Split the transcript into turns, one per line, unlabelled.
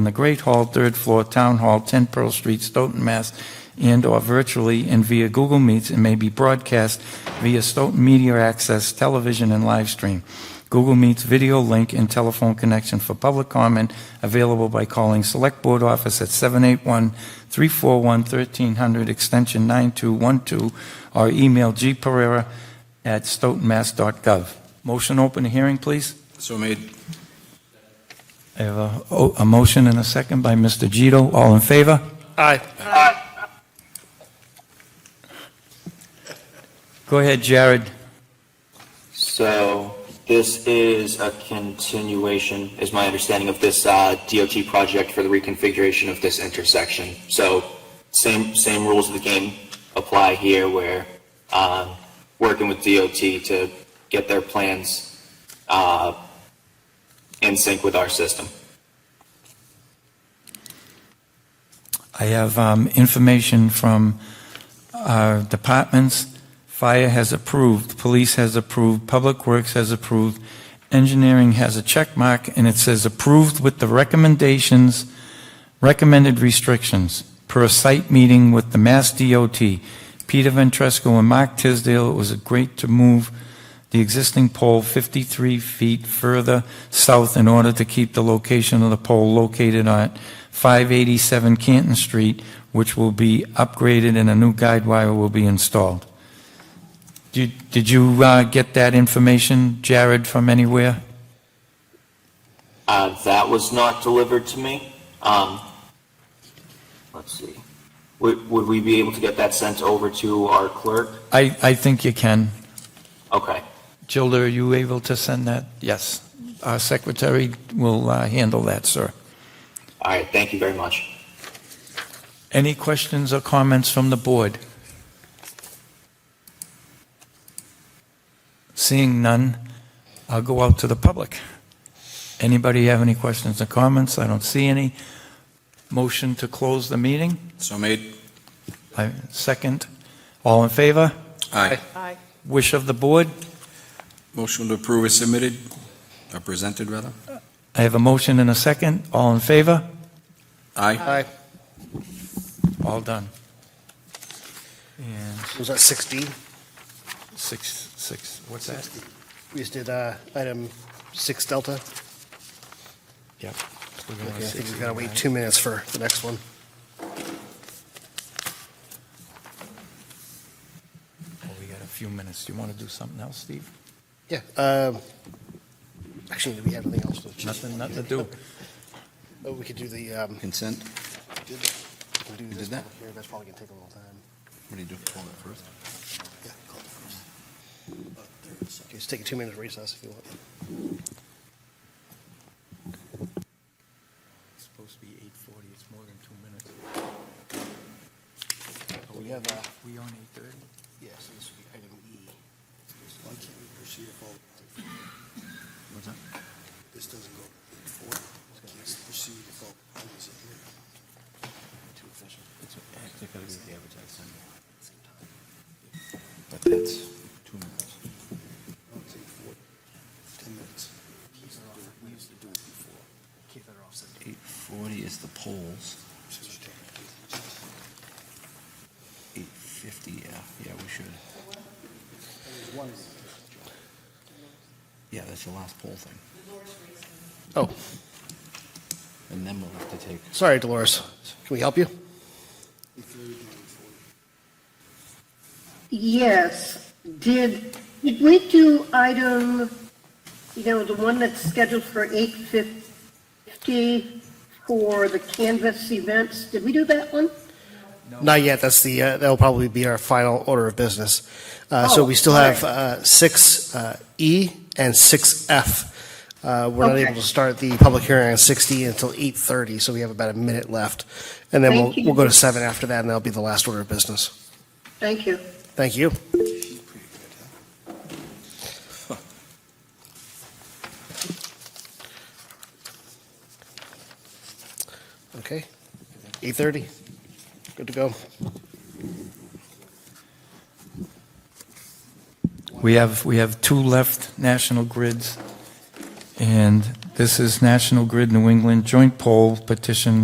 in the Great Hall, third floor, Town Hall, 10 Pearl Street, Stoughton, Mass., and/or virtually and via Google Meets, and may be broadcast via Stoughton Media Access Television and live stream. Google Meets video link and telephone connection for public comment available by calling Select Board Office at 781-341-1300, extension 9212, or email gperera@stoughtonmass.gov. Motion open the hearing, please.
So made.
I have a, oh, a motion and a second by Mr. Gito. All in favor?
Aye.
Go ahead, Jared.
So this is a continuation, is my understanding of this uh, DOT project for the reconfiguration of this intersection. So same, same rules of the game apply here where um, working with DOT to get their plans uh, in sync with our system.
I have um, information from our departments. Fire has approved, police has approved, Public Works has approved, engineering has a check mark, and it says approved with the recommendations, recommended restrictions per site meeting with the Mass DOT. Peter Ventresco and Mark Tisdale, it was great to move the existing pole 53 feet further south in order to keep the location of the pole located on 587 Canton Street, which will be upgraded and a new guide wire will be installed. Did did you uh, get that information, Jared, from anywhere?
Uh, That was not delivered to me. Um, Let's see. Would would we be able to get that sent over to our clerk?
I I think you can.
Okay.
Gilda, are you able to send that? Yes. Our secretary will uh, handle that, sir.
All right, thank you very much.
Any questions or comments from the board? Seeing none, I'll go out to the public. Anybody have any questions or comments? I don't see any. Motion to close the meeting?
So made.
I- Second. All in favor?
Aye.
Wish of the board?
Motion to approve is submitted, or presented, rather.
I have a motion and a second. All in favor?
Aye.
All done. And
Was that 16?
six, six, what's that?
We just did uh, item 6 Delta.
Yep. We're
Okay,
gonna
I think
six
we've got to
and
wait
nine.
two minutes for the next one.
Oh, We got a few minutes. Do you want to do something else, Steve?
Yeah. um, Actually, do we have anything else? to-
Nothing, nothing to do.
Oh, We could do the, um,
Consent?
we can do this
that?
public hearing. That's probably going to take a little time.
What do you do, call it first?
Yeah, call it first. Just take a two-minute recess if you want.
It's supposed to be eight forty, it's more than two minutes. Are
We have, uh,
We on eight thirty?
Yes, this would be item E. Why can't we proceed if all?
What's that?
This doesn't go forward. Why can't we proceed if all items are here? Too efficient.
But that's two minutes.
Ten minutes. We used to do it before. Keep that off.
Eight forty is the polls, eight fifty, yeah, yeah, we should. Yeah, that's the last poll thing,
Oh,
and then we'll have to take.
sorry, Dolores. Can we help you?
Yes. Did, did we do item, you know, the one that's scheduled for 8:50 for the Canvas events? Did we do that one?
Not yet. That's the, uh, that'll probably be our final order of business. Uh, So
Oh,
we still
all
have
right.
uh, 6E and 6F. Uh, We're not
Okay.
able to start the public hearing on 60 until 8:30, so we have about a minute left. And then we'll,
Thank you.
we'll go to 7 after that, and that'll be the last order of business.
Thank you.
Thank you. Okay. 8:30. Good to go.
We have, we have two left, National Grids, and This is National Grid New England Joint Poll Petition